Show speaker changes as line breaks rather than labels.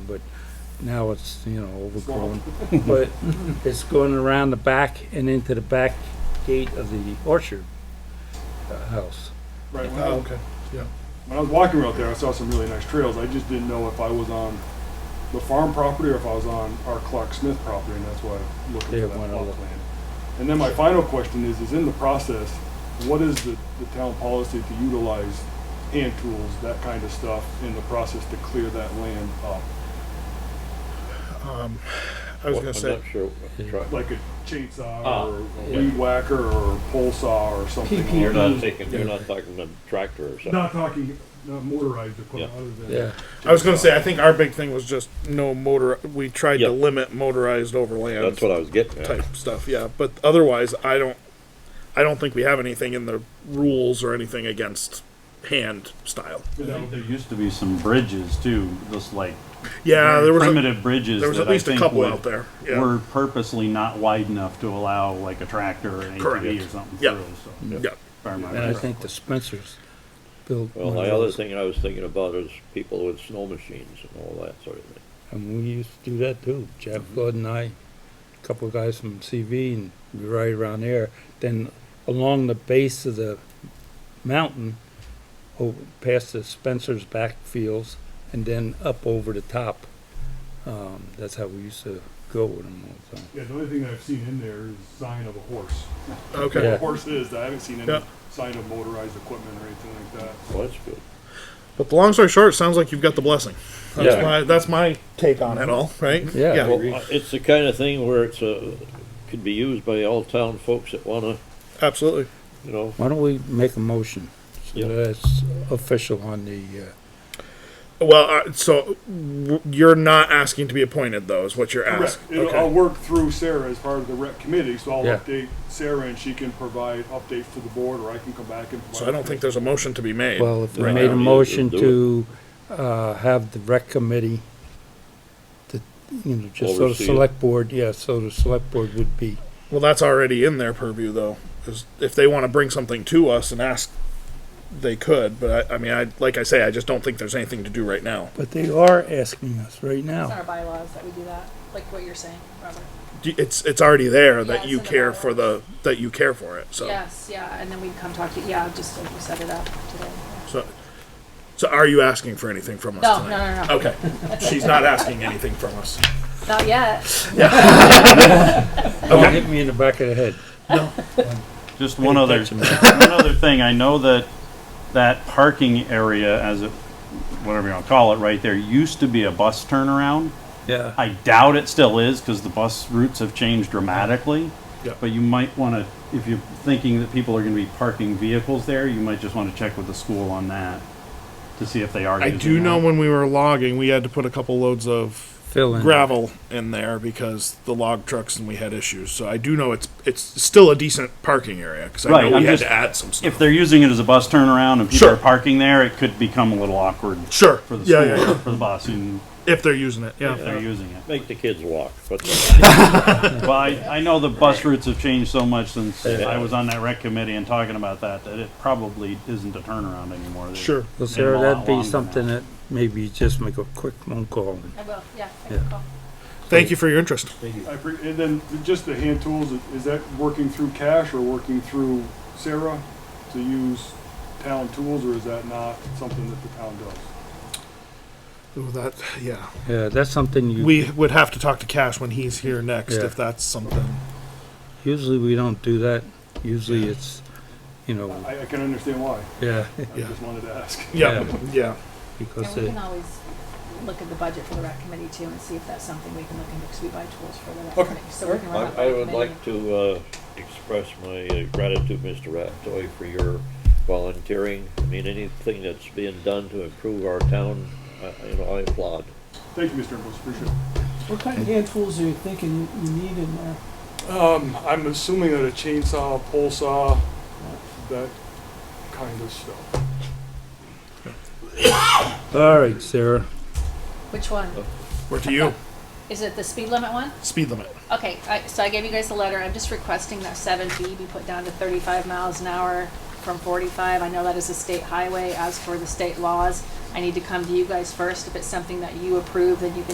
but now it's, you know, overgrown. But it's going around the back and into the back gate of the orchard uh, house.
Right, when I,
Okay, yeah.
when I was walking out there, I saw some really nice trails. I just didn't know if I was on the farm property or if I was on our Clark Smith property, and that's why I'm looking
Yeah,
for
why
that
not
plot
look?
plan. And then my final question is, is in the process, what is the, the town policy to utilize hand tools, that kind of stuff, in the process to clear that land up?
Um, I was gonna say,
I'm not sure. Try-
Like a chainsaw
Ah,
or a
yeah. E.
weed whacker or a pole saw or something?
You're
along-
not thinking, you're not talking a tractor or something.
Not talking, not motorized equipment,
Yeah.
other than.
Yeah,
I was gonna say, I think our big thing was just no motor, we tried to
Yep.
limit motorized overland.
That's what I was getting at.
Type stuff, yeah, but otherwise, I don't, I don't think we have anything in the rules or anything against hand style.
I think There used to be some bridges too, just like
Yeah,
very
there was, a-
primitive bridges.
there was
that
at
I
least a
think
couple
would-
out there, yeah,
Were purposely not wide enough to allow like a tractor or an ATV or
Correct.
something
Yeah.
through, so.
yeah,
if I remember
and I
correctly.
think the Spencers built.
Well,
one of
the other
those,
thing I was thinking about is people with snow machines and all that sort of thing.
And we used to do that too. Jeff Flood and I, a couple of guys from CV and we ride around there. Then along the base of the mountain, over, past the Spencer's backfields and then up over the top. Um, that's how we used to go with them all the time.
Yeah, the only thing I've seen in there is sign of a horse.
okay.
Yeah.
What horse is, I haven't seen
Yeah.
any sign of motorized equipment or anything like that.
Well, that's good.
But the long story short, it sounds like you've got the blessing. That's
Yeah.
my that's my take on it all, right?
Yeah.
Well, uh, it's the kind of thing where it's a, could be used by all town folks that wanna,
absolutely.
you know,
Why don't we make a motion?
Yeah.
So that's official on the, uh,
Well, uh, so w- you're not asking to be appointed, though, is what you're
Correct.
asking.
It'll- I'll work through Sarah as part of the rec committee, so I'll
Yeah.
update Sarah and she can provide updates to the board, or I can come back and.
So I don't think there's a motion to be made.
well, if we
Right
made
now,
a
yeah,
motion
do
to, uh, have the rec committee to, you know, just so the
Oversee it.
select board, yeah, so the select board would be,
well, that's already in their purview, though, 'cause if they want to bring something to us and ask, they could. But I, I mean, I like I say, I just don't think there's anything to do right now.
but they are asking us right
It's in
now.
our bylaws that we do that, like what you're saying, Robert.
D- It's it's already there that
Yeah,
you
it's in the
care
bylaws.
for the that you care for it.
Oh.
So
Yes, yeah, and then we'd come talk to you, yeah, just like you set it up today.
so so are you asking for anything from us?
No, no,
tonight?
no, no,
Okay, she's not asking anything from us.
Oh.
not yet.
Don't hit me in the back of the head.
Just one other,
attention.
one other thing, I know that that parking area, as it, whatever you wanna call it, right there, used to be a bus turnaround.
Yeah.
I doubt it still is, because the bus routes have changed dramatically.
Yeah.
But you might wanna, if you're thinking that people are gonna be parking vehicles there, you might just wanna check with the school on that, to see if they are.
I
using
do
that.
know when we were logging, we had to put a couple loads of
Fill in.
gravel in there because the log trucks and we had issues. So I do know it's it's still a decent parking area because I
Right,
know we
I'm
had
just-
to add some stuff.
If they're using it as a bus turnaround and people
Sure.
are parking there, it could become a little awkward
sure,
for the
yeah, yeah,
school,
yeah.
for the bus, and
if they're using it, yeah.
if they're using it.
make the kids walk, but
Well, I, I know the bus routes have changed so much since
Yeah.
I was on that rec committee and talking about that, that it probably isn't a turnaround anymore. They-
Sure.
So
been a
Sarah,
lot
that'd
longer
be
now.
something that maybe you just make a quick phone call. and-
I will, yeah, I
Yeah.
can call.
Thank you for your interest.
I pre- and then just the hand tools, is- is that working through cash or working through Sarah to use town tools, or is that not something that the town does?
Ooh, that yeah.
Yeah, that's something you,
We would have to talk to Cash when he's here next
Yeah.
if that's something.
usually we don't do that. Usually it's, you know,
I, I can understand why,
yeah,
I
Yeah.
just wanted to ask.
Yeah, yeah.
because
And we
it,
can always look at the budget for the rec committee too and see if that's something we can look into, because we buy tools for the rec
Okay.
committee. So we can run that by
I, I
the
would
committee.
like to, uh, express my uh, gratitude, Mr. Rattoy, for your volunteering. I mean, anything that's being done to improve our town, I, you know, I applaud.
Thank you, Mr. Nichols, appreciate it.
What kind of hand tools are you thinking you need in there?
Um, I'm assuming that a chainsaw, pole saw, that kind of stuff.
all right, Sarah.
Which one?
Oh.
Where to you?
Is it the speed limit one?
Speed limit.
Okay, I, so I gave you guys the letter, I'm just requesting that seven B be put down to thirty-five miles an hour from forty-five, I know that is a state highway, as for the state laws, I need to come to you guys first, if it's something that you approve, then you can